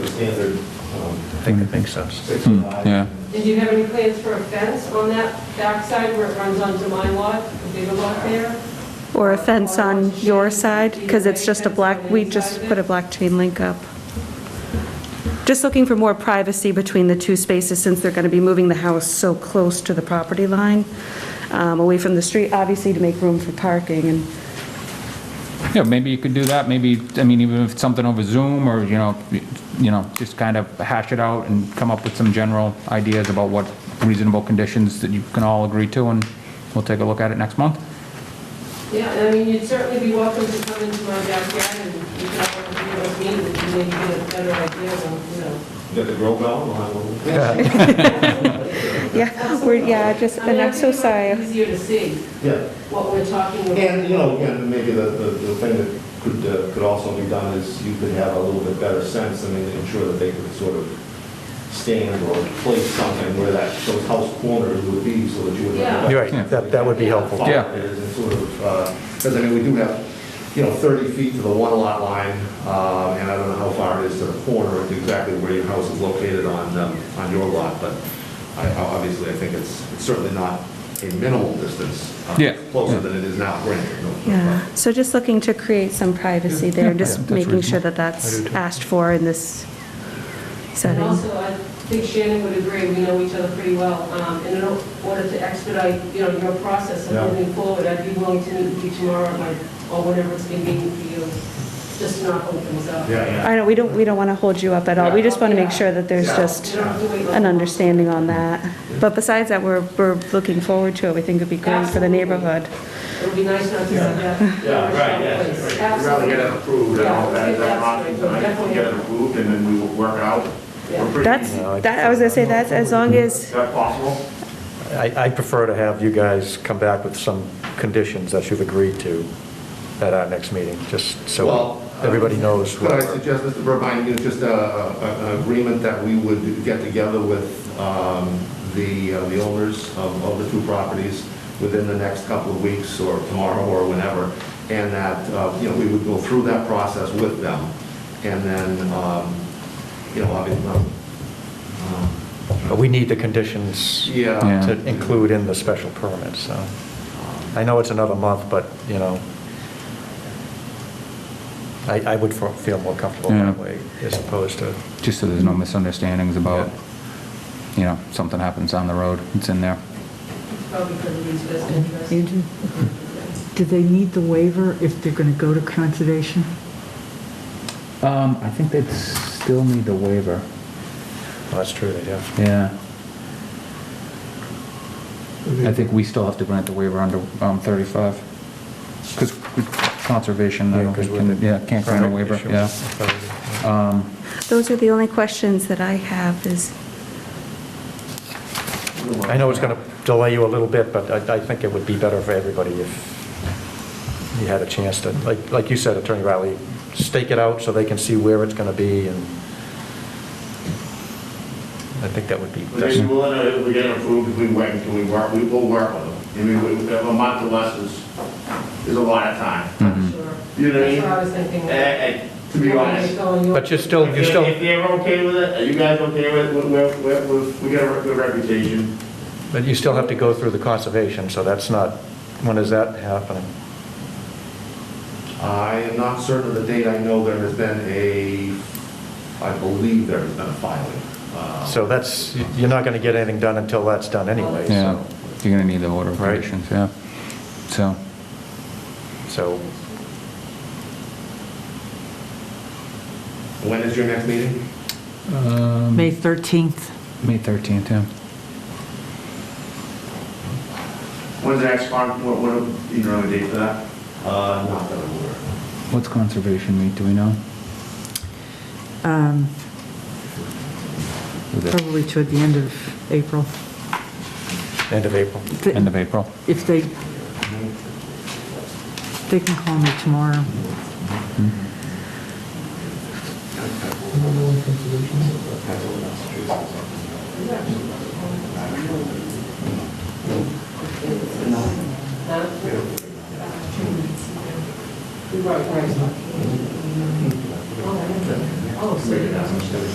standard um, thing that makes sense. six and nine. yeah. Did you have any plans for a fence on that backside where it runs onto my lot, the bigger lot there? Or a fence on your side, because it's just a black, we just put a black chain link up. Just looking for more privacy between the two spaces, since they're going to be moving the house so close to the property line, um, away from the street, obviously to make room for parking, and Yeah, maybe you could do that, maybe, I mean, even if it's something over Zoom, or, you know, you know, just kind of hash it out and come up with some general ideas about what reasonable conditions that you can all agree to, and we'll take a look at it next month. Yeah, I mean, you'd certainly be welcome to come into my backyard and you can have a meeting and maybe get a better idea of, you know. You got the grow bell? We'll have one. yeah, we're, yeah, just, I mean, and I I'm so think it might be sorry. Easier to see Yeah. what we're talking about. And, you know, again, maybe the, the the thing that could, uh, could also be done is you could have a little bit better sense, I mean, ensure that they could sort of stand or place something where that, those house corners would be, so that you would. Yeah. You're right, that, that would be helpful. Yeah. And sort of, because I mean, we do have, you know, 30 feet to the one lot line, uh, and I don't know how far it is to the corner, and exactly where your house is located on, um, on your lot, but I, I- obviously, I think it's it's certainly not a minimal distance. uh, Yeah. Closer than it is now, granted. no- no problem. Yeah, so just looking to create some privacy there, Yeah, just that's making sure reasonable. that that's asked for in this And setting. also, I think Shannon would agree, we know each other pretty well, um, and in order to expedite, you know, your process of Yeah. moving forward, I'd be willing to meet with you tomorrow, at my- or whenever it's convenient for you, just not opens up. Yeah, I know, we don't, we don't want to hold you up at all, we just want to make sure that there's just You don't have to wait. an understanding on that. But besides that, we're, we're looking forward to it, we think it'd be great for the neighborhood. It would be nice not to see that. Yeah, right, yeah. Place. We'd rather get it approved and all Yeah, that, that's that option, right, tonight, get it approved, and then we will work out. Yeah. We're pretty That's, easy. that, I was gonna say, that's as long Is as, that possible? I, I prefer to have you guys come back with some conditions that you've agreed to at our next meeting, just so Well, uh, everybody knows. Could I what- suggest, Mr. Burbine, you know, just a- a- an agreement that we would get together with um, the uh, the owners of of the two properties within the next couple of weeks or tomorrow or whenever, and that, uh, you know, we would go through that process with them, and then, um, you know, obviously, um, But we need the conditions yeah. to include in the special permit, so. I know it's another month, but, you know, I, I would fe- feel more comfortable that Yeah. way as opposed to, Just so there's no misunderstandings about, you know, something happens on the road, it's in there. Probably for the least best interest. Andrew, do they need the waiver if they're going to go to conservation? Um, I think they'd still need the waiver, well, that's true, they do. yeah. I think we still have to grant the waiver under, um, 35, because conservation, I don't think, can- yeah, can't grant a waiver, yeah. Um, those are the only questions that I have is, I know it's going to delay you a little bit, but I, I think it would be better for everybody if you had a chance to, like, like you said, Attorney Riley, stake it out so they can see where it's going to be, and I think that would be Would they be best. willing to, if we get it approved, if we wait until we work, we will work on them. I mean, we- we- a month or less is, is a lot of time. Sure. You know what I mean? That's what I was thinking. Eh, eh, to be honest. But you're still, If you're they- still, If they're okay with it, are you guys okay with, it? we, we, we, we got a good reputation. but you still have to go through the conservation, so that's not, when is that happening? I am not certain of the date, I know there has been a, I believe there has been a filing. uh, So that's, you're not going to get anything done until that's done anyway, Yeah, so. you're gonna need the order of Right. conditions, yeah. So, So When is your next meeting? Um, May 13th. May 13th, yeah. When's the next one, what, what, you know, a date for that? Uh, Not that I'm aware of. What's conservation meet, do we know? um, Is it Probably toward the end of April. end of April. Th- End of April? If they, they can call me tomorrow. Right, right. Oh, so you guys are-